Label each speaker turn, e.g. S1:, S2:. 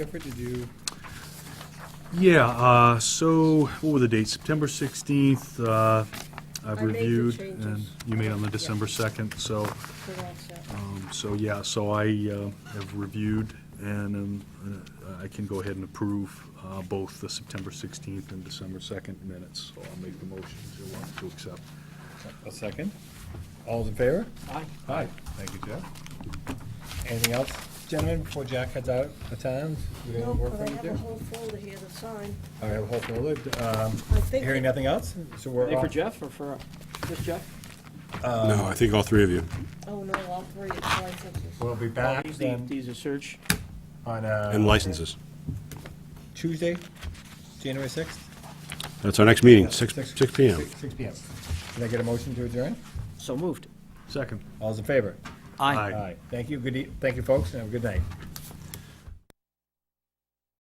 S1: Clifford, did you,
S2: Yeah, uh, so, what were the dates? September 16th, uh, I've
S3: I made the
S2: reviewed.
S3: changes.
S2: and You made on the December 2nd, so,
S3: We're all set.
S2: um, so, yeah, so I uh, have reviewed, and um, uh, I can go ahead and approve uh, both the September 16th and December 2nd minutes, so I'll make the motion to uh, to accept.
S1: a second? All's in favor?
S4: Aye.
S1: Aye. Thank you, Jeff. Anything else, gentlemen, before Jack heads out of town? We got any
S3: No,
S1: work
S3: but
S1: for you
S3: I
S1: to
S3: have
S1: do?
S3: a whole folder here to sign.
S1: All right, hold for a loop. Um,
S3: I think
S1: Hearing nothing else? So
S4: Are
S1: we're
S4: they for
S1: off.
S4: Jeff or for, just Jeff?
S5: No, I think all three of you.
S3: Oh, no, all three, it's licenses.
S1: We'll be back
S4: These-
S1: then
S4: These are search.
S1: on
S5: And
S1: uh,
S5: licenses.
S1: Tuesday, January 6th?
S5: That's our next meeting, six, six P M.
S1: Six- Six PM. Can I get a motion to adjourn?
S4: So moved.
S2: Second.
S1: All's in favor?
S2: Aye.
S1: All right. Thank you, good, e- thank you, folks, and have a good night.